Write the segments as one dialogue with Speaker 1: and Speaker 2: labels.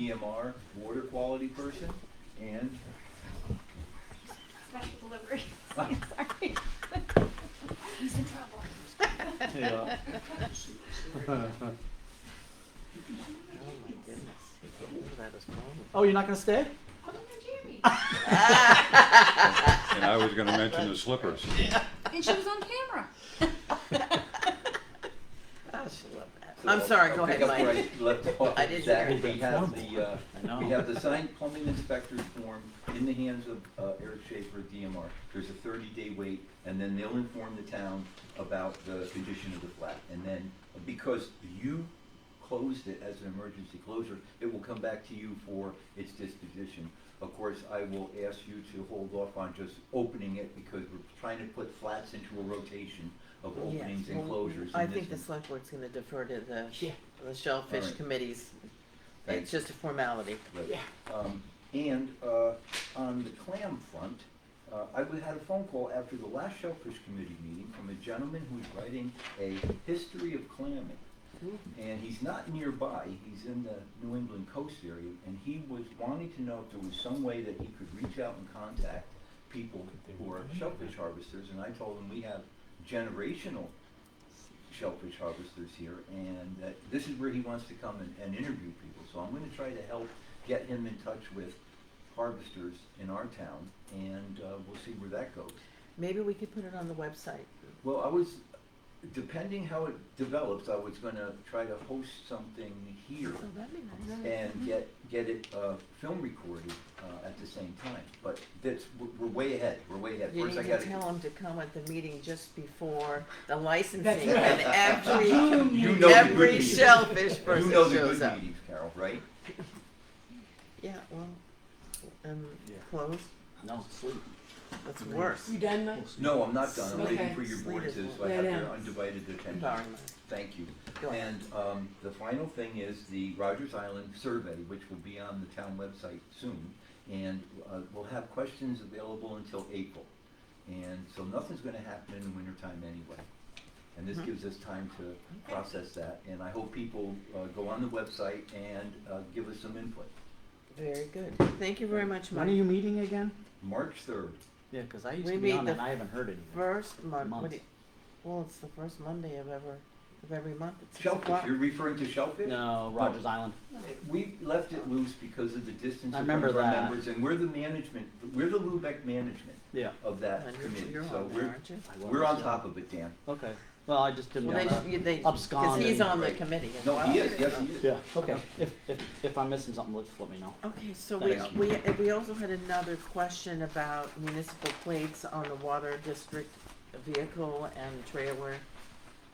Speaker 1: EMR water quality person, and
Speaker 2: Special delivery.
Speaker 3: Sorry.
Speaker 2: He's in trouble.
Speaker 4: Yeah.
Speaker 5: Oh my goodness. I didn't know that was wrong.
Speaker 4: Oh, you're not gonna stay?
Speaker 2: Put on your jammies.
Speaker 6: And I was gonna mention the slippers.
Speaker 2: And she was on camera.
Speaker 5: Oh, she loved that. I'm sorry, go ahead,
Speaker 1: Pick up
Speaker 5: Mike.
Speaker 1: right, left off,
Speaker 5: I didn't
Speaker 1: Zach,
Speaker 5: hear
Speaker 1: we have the, uh,
Speaker 4: I know.
Speaker 1: we have the signed plumbing inspector's form in the hands of uh, Eric Schaefer at DMR. There's a thirty-day wait, and then they'll inform the town about the condition of the flat. And then, because you closed it as an emergency closure, it will come back to you for its disposition. Of course, I will ask you to hold off on just opening it, because we're trying to put flats into a rotation of
Speaker 5: Yes,
Speaker 1: openings and
Speaker 5: well,
Speaker 1: closures.
Speaker 5: I
Speaker 1: and
Speaker 5: think the
Speaker 1: this-
Speaker 5: select board's gonna defer to the,
Speaker 4: Yeah.
Speaker 5: the shellfish
Speaker 1: Alright.
Speaker 5: committees.
Speaker 1: Thanks.
Speaker 5: It's just a formality.
Speaker 1: Right.
Speaker 4: Yeah.
Speaker 1: Um, and, uh, on the clam front, uh, I w- had a phone call after the last Shellfish Committee meeting from a gentleman who's writing a history of clamming. And he's not nearby, he's in the New England coast area, and he was wanting to know if there was some way that he could reach out and contact people who are shellfish harvesters, and I told him we have generational shellfish harvesters here, and that this is where he wants to come and, and interview people. So I'm gonna try to help get him in touch with harvesters in our town, and, uh, we'll see where that goes.
Speaker 5: Maybe we could put it on the website.
Speaker 1: Well, I was, depending how it develops, I was gonna try to host something here
Speaker 5: Oh, that'd be nice.
Speaker 1: and get, get it, uh, film recorded, uh, at the same time. But that's, we're, we're way ahead, we're way ahead.
Speaker 5: You
Speaker 1: First, I
Speaker 5: need to
Speaker 1: gotta.
Speaker 5: tell them to come at the meeting just before the licensing
Speaker 4: right.
Speaker 5: and every,
Speaker 4: Zoom
Speaker 1: You know the good
Speaker 5: every
Speaker 1: meetings.
Speaker 5: shellfish
Speaker 1: You
Speaker 5: person
Speaker 1: know the
Speaker 5: shows
Speaker 1: good
Speaker 5: up.
Speaker 1: meetings, Carol, right?
Speaker 5: Yeah, well, um,
Speaker 4: Yeah.
Speaker 5: close,
Speaker 4: No, sleep.
Speaker 5: that's worse.
Speaker 7: You done, Mike?
Speaker 1: No, I'm not done. I'm waiting
Speaker 7: Okay.
Speaker 1: for your board's, so I
Speaker 7: Yeah,
Speaker 1: have
Speaker 7: yeah.
Speaker 1: your undivided attention.
Speaker 5: Sorry, Mike.
Speaker 1: Thank you.
Speaker 5: Go ahead.
Speaker 1: And um, the final thing is the Rogers Island survey, which will be on the town website soon. And uh, we'll have questions available until April. And so nothing's gonna happen in the wintertime anyway. And
Speaker 5: Mm-hmm.
Speaker 1: this gives us time to process that. And I hope people uh, go on the website and uh, give us some input.
Speaker 5: Very good. Thank you very much,
Speaker 4: When are you
Speaker 5: Mike.
Speaker 4: meeting again?
Speaker 1: March third,
Speaker 4: Yeah, 'cause I used
Speaker 5: We
Speaker 4: to be
Speaker 5: meet
Speaker 4: on
Speaker 5: the
Speaker 4: that. and I haven't heard anything.
Speaker 5: First month, what
Speaker 4: Month.
Speaker 5: do you, well, it's the first Monday of ever, of every month. It's six
Speaker 1: shellfish,
Speaker 5: o'clock.
Speaker 1: you're referring to shellfish?
Speaker 4: No, Rogers Island.
Speaker 1: We left it loose because of the distance
Speaker 4: I
Speaker 1: of one of
Speaker 4: remember
Speaker 1: our
Speaker 4: that.
Speaker 1: members, and we're the management, we're the Lubec management
Speaker 4: Yeah.
Speaker 1: of
Speaker 5: I
Speaker 1: that
Speaker 5: know
Speaker 1: committee,
Speaker 5: You're
Speaker 1: so
Speaker 5: on there,
Speaker 1: we're,
Speaker 5: aren't you?
Speaker 4: I
Speaker 1: we're
Speaker 4: was,
Speaker 1: on
Speaker 4: yeah.
Speaker 1: top of it, Dan.
Speaker 4: Okay. Well, I just didn't
Speaker 5: Well,
Speaker 4: want
Speaker 5: they,
Speaker 4: to.
Speaker 5: you- they, because
Speaker 4: Abscond
Speaker 5: he's
Speaker 4: and-
Speaker 5: on the
Speaker 1: Right.
Speaker 5: committee. as
Speaker 1: No,
Speaker 5: well.
Speaker 1: he is, yes, he is.
Speaker 4: Yeah. Okay. If if if I'm missing something, let let me know.
Speaker 5: Okay, so we,
Speaker 4: Thank
Speaker 5: we, and we also had another question about municipal plates on the water district vehicle and trailer.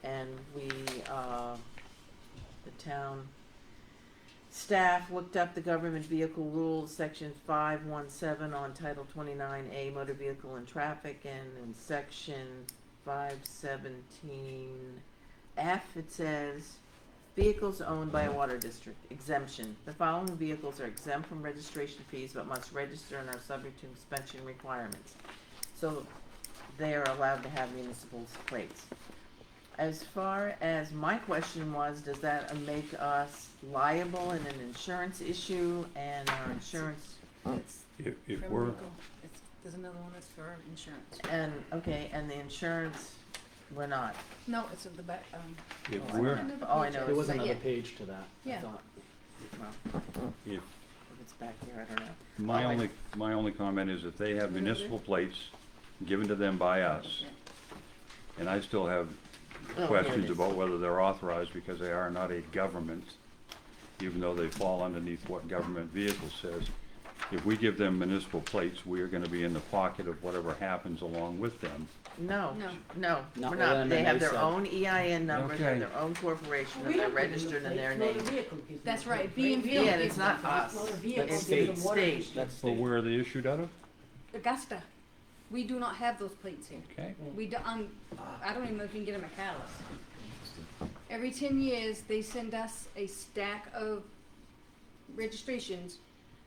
Speaker 5: And we, uh, the town staff looked up the government vehicle rules, section five one seven on title twenty-nine A motor vehicle and traffic and in section five seventeen F, it says, Vehicles owned by a water district exemption. The following vehicles are exempt from registration fees but must register and are subject to inspection requirements. So they are allowed to have municipal plates. As far as my question was, does that make us liable in an insurance issue and our insurance,
Speaker 7: It's
Speaker 6: If, if
Speaker 7: for
Speaker 6: we're,
Speaker 7: legal. It's, there's another one that's for insurance.
Speaker 5: and, okay, and the insurance, we're not.
Speaker 7: No, it's at the back, um.
Speaker 6: if
Speaker 7: it's
Speaker 6: we're,
Speaker 7: another
Speaker 5: Oh, I
Speaker 7: page.
Speaker 5: know,
Speaker 4: There was
Speaker 5: like-
Speaker 4: another page to that. I
Speaker 7: Yeah.
Speaker 4: thought.
Speaker 5: Well,
Speaker 6: if,
Speaker 5: if it's back here, I don't know.
Speaker 6: my
Speaker 5: Oh, I-
Speaker 6: only, my only comment is if they have municipal plates given to them by us,
Speaker 7: Yeah.
Speaker 6: and I still have
Speaker 5: here Oh, it
Speaker 6: questions
Speaker 5: is.
Speaker 6: about whether they're authorized because they are not a government, even though they fall underneath what government vehicle says. If we give them municipal plates, we are gonna be in the pocket of whatever happens along with them.
Speaker 5: No,
Speaker 7: No.
Speaker 5: no,
Speaker 4: Not
Speaker 5: we're
Speaker 4: with
Speaker 5: not. They have their
Speaker 4: NMA, so-
Speaker 5: own EIN numbers, they're
Speaker 6: Okay.
Speaker 5: their own corporation,
Speaker 8: We
Speaker 5: and they're
Speaker 8: don't give them
Speaker 5: registered in their
Speaker 8: plates, motor
Speaker 5: name.
Speaker 8: vehicle gives them
Speaker 7: That's
Speaker 8: the
Speaker 7: right,
Speaker 8: plates.
Speaker 7: B and V.
Speaker 5: Yeah, and it's not us.
Speaker 8: Motor
Speaker 4: That's
Speaker 8: vehicle gives
Speaker 4: state.
Speaker 8: them water.
Speaker 5: State.
Speaker 8: district.
Speaker 4: That's
Speaker 6: But
Speaker 4: state.
Speaker 6: where are they issued out of?
Speaker 7: Augusta. We do not have those plates here.
Speaker 6: Okay.
Speaker 7: We do, um, I don't even know if you can get them at Catalyst. Every ten years, they send us a stack of registrations.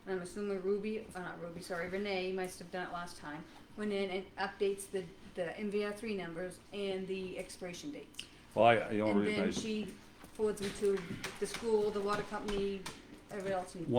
Speaker 7: And I'm assuming Ruby, uh, not Ruby, sorry, Renee must have done it last time. Went in and updates the, the MVR three numbers and the expiration dates.
Speaker 6: Well, I, the only
Speaker 7: And
Speaker 6: reason I.
Speaker 7: then she forwards them to the school, the water company, everybody else. in-